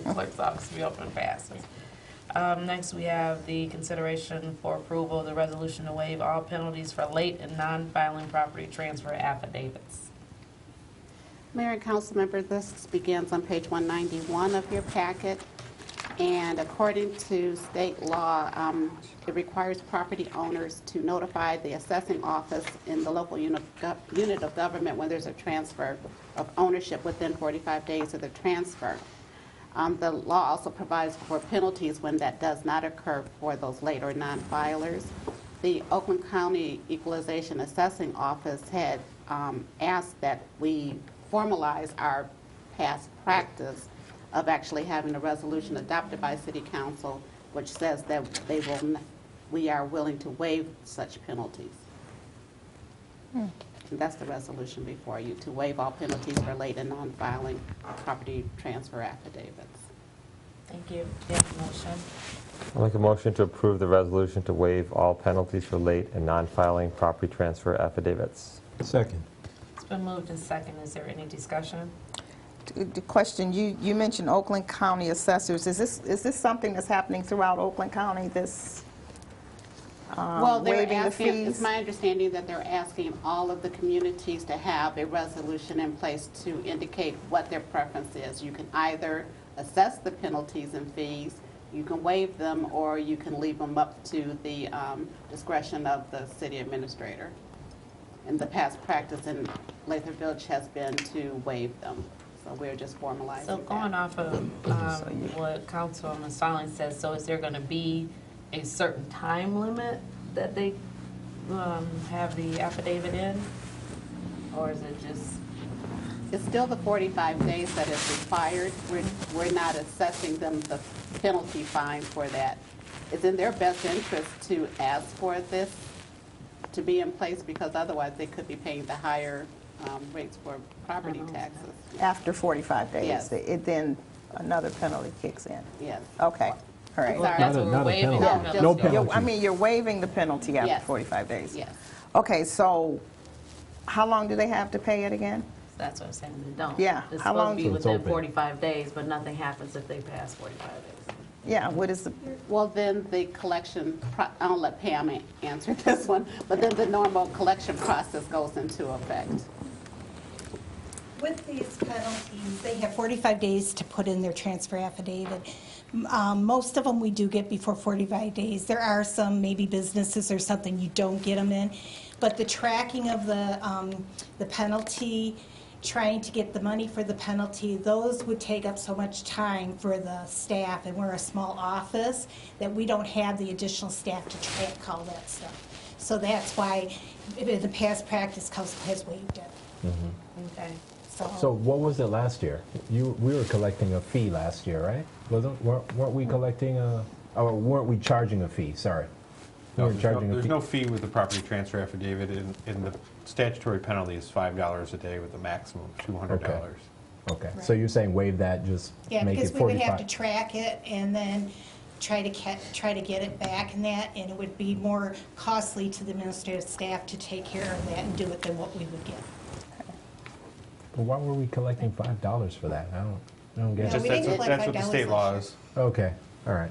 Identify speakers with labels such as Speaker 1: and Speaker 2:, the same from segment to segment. Speaker 1: clerk's office be open and fast. Um, Next, we have the consideration for approval of the resolution to waive all penalties for late and non-filing property transfer affidavits.
Speaker 2: Mayor and council members, this begins on page 191 of your packet. And according to state law, um, it requires property owners to notify the assessing office in the local uni- gov- unit of government when there's a transfer of ownership within 45 days of the transfer. Um, The law also provides for penalties when that does not occur for those later non-filers. The Oakland County Equalization Assessing Office had um, asked that we formalize our past practice of actually having a resolution adopted by City Council, which says that they will, n- we are willing to waive such penalties. And that's the resolution before you, to waive all penalties for late and non-filing property transfer affidavits.
Speaker 1: Thank you. Do you have a motion?
Speaker 3: I'll make a motion to approve the resolution to waive all penalties for late and non-filing property transfer affidavits.
Speaker 4: Second.
Speaker 1: It's been moved and second. Is there any discussion?
Speaker 5: T- t- Question, you, you mentioned Oakland County assessors. Is this, is this something that's happening throughout Oakland County, this um,
Speaker 2: Well, they're
Speaker 5: waiving the
Speaker 2: asking, it's
Speaker 5: fees?
Speaker 2: my understanding that they're asking all of the communities to have a resolution in place to indicate what their preference is. You can either assess the penalties and fees, you can waive them, or you can leave them up to the um, discretion of the city administrator. And the past practice in Lathrop Village has been to waive them, so we're just formalizing
Speaker 1: So going
Speaker 2: that.
Speaker 1: off of um, what Councilwoman Stallings says, so is there going to be a certain time limit that they um, have the affidavit in? Or is it just,
Speaker 2: It's still the 45 days that is required. We're, we're not assessing them the penalty fine for that. It's in their best interest to ask for this to be in place because otherwise they could be paying the higher um, rates for property taxes.
Speaker 5: After 45 days,
Speaker 2: Yes.
Speaker 5: th- it then another penalty kicks in?
Speaker 2: Yes.
Speaker 5: Okay, all
Speaker 2: Sorry.
Speaker 5: right.
Speaker 1: that's
Speaker 4: Not
Speaker 1: what
Speaker 4: a,
Speaker 1: we're
Speaker 4: not a
Speaker 1: waiving?
Speaker 2: penalty.
Speaker 1: the
Speaker 2: No,
Speaker 4: penalty. No
Speaker 2: just-
Speaker 5: You're- I
Speaker 4: penalty.
Speaker 5: mean, you're waiving the penalty after
Speaker 2: Yes.
Speaker 5: 45 days?
Speaker 2: Yes.
Speaker 5: Okay, so how long do they have to pay it again?
Speaker 1: That's what I'm saying, they don't.
Speaker 5: Yeah,
Speaker 1: It's supposed to
Speaker 5: how long-
Speaker 1: be
Speaker 5: So
Speaker 4: it's
Speaker 1: within
Speaker 4: open.
Speaker 1: 45 days, but nothing happens if they pass 45 days.
Speaker 5: Yeah, what is the,
Speaker 2: Well, then the collection, pro- I'll let Pam a- answer this one, but then the normal collection process goes into effect.
Speaker 6: With these penalties, they have 45 days to put in their transfer affidavit. Um, Most of them we do get before 45 days. There are some, maybe businesses or something, you don't get them in. But the tracking of the, um, the penalty, trying to get the money for the penalty, those would take up so much time for the staff, and we're a small office, that we don't have the additional staff to track all that stuff. So that's why, in the past practice, council has waived it.
Speaker 1: Okay.
Speaker 4: So what was it last year? You, we were collecting a fee last year, right? Wasn't, weren't weren't we collecting a, or weren't we charging a fee? Sorry. We
Speaker 7: No,
Speaker 4: were
Speaker 7: there's no-
Speaker 4: charging a
Speaker 7: there's
Speaker 4: fee.
Speaker 7: no fee with the property transfer affidavit, and, and the statutory penalty is five dollars a day with a maximum of two hundred dollars.
Speaker 4: Okay, so you're saying waive that, just
Speaker 6: Yeah,
Speaker 4: make it
Speaker 6: because we would have
Speaker 4: 45?
Speaker 6: to track it and then try to ca, try to get it back and that, and it would be more costly to the administrative staff to take care of that and do it than what we would get.
Speaker 4: But Why were we collecting $5 for that? I don't, I don't
Speaker 6: No,
Speaker 4: get
Speaker 7: Just
Speaker 6: we
Speaker 4: it.
Speaker 7: that's
Speaker 6: didn't
Speaker 7: what,
Speaker 6: collect
Speaker 7: that's what the
Speaker 6: $5 last
Speaker 7: state law
Speaker 6: year.
Speaker 7: is.
Speaker 4: Okay, all right.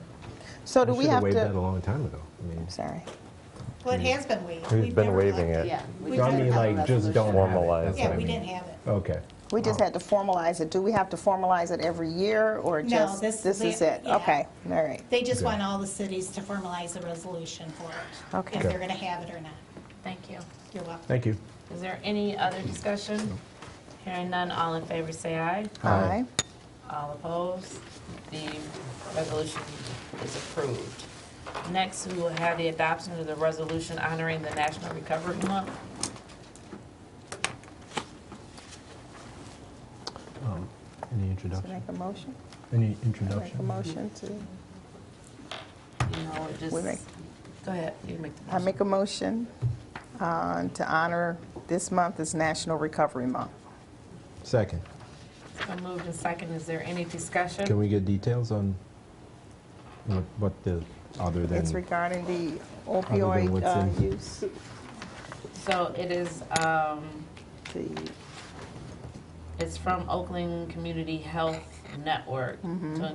Speaker 5: so do we have
Speaker 4: should have waived that a
Speaker 5: to,
Speaker 4: long time ago. I mean,
Speaker 5: sorry.
Speaker 6: Well,
Speaker 4: Mm.
Speaker 6: it has been waived.
Speaker 3: We've
Speaker 6: We've
Speaker 3: been
Speaker 6: never
Speaker 3: waiving
Speaker 6: collected
Speaker 3: it.
Speaker 2: Yeah. we
Speaker 6: We
Speaker 4: so
Speaker 2: don't
Speaker 4: I mean,
Speaker 2: have a
Speaker 4: like, just
Speaker 2: resolution.
Speaker 4: don't have it.
Speaker 3: Formalize
Speaker 4: That's
Speaker 6: Yeah,
Speaker 4: what I
Speaker 6: we
Speaker 4: mean. Oh,
Speaker 6: didn't have it.
Speaker 4: Okay.
Speaker 5: We just had to formalize it. Do we have to formalize it every year, or
Speaker 6: No,
Speaker 5: just,
Speaker 6: this-
Speaker 5: this is it?
Speaker 6: yeah.
Speaker 5: Okay, all right.
Speaker 6: They just
Speaker 4: Okay.
Speaker 6: want all the cities to formalize a resolution for it.
Speaker 5: Okay.
Speaker 6: If they're gonna have it or not.
Speaker 1: Thank you.
Speaker 6: You're welcome.
Speaker 4: Thank you.
Speaker 1: Is there any other discussion? Hearing none, all in favor say aye.
Speaker 5: Aye.
Speaker 1: All opposed? The resolution is approved. Next, we will have the adoption of the resolution honoring the National Recovery Month.
Speaker 7: Um,
Speaker 4: Any
Speaker 5: So make
Speaker 4: introduction?
Speaker 5: a motion?
Speaker 4: Any
Speaker 5: Make a
Speaker 4: introduction?
Speaker 5: motion to,
Speaker 1: You know, it just,
Speaker 5: We make-
Speaker 1: go ahead, you make the
Speaker 5: I
Speaker 1: motion.
Speaker 5: make a motion uh, to honor this month is National Recovery Month.
Speaker 4: Second.
Speaker 1: It's been moved and second. Is there any discussion?
Speaker 4: Can we get details on what, what the, other than?
Speaker 5: It's regarding the
Speaker 4: than
Speaker 5: opioid
Speaker 4: what's
Speaker 5: uh,
Speaker 4: in-
Speaker 5: use,
Speaker 1: So it is, um,
Speaker 5: the
Speaker 1: it's from Oakland Community Health Network to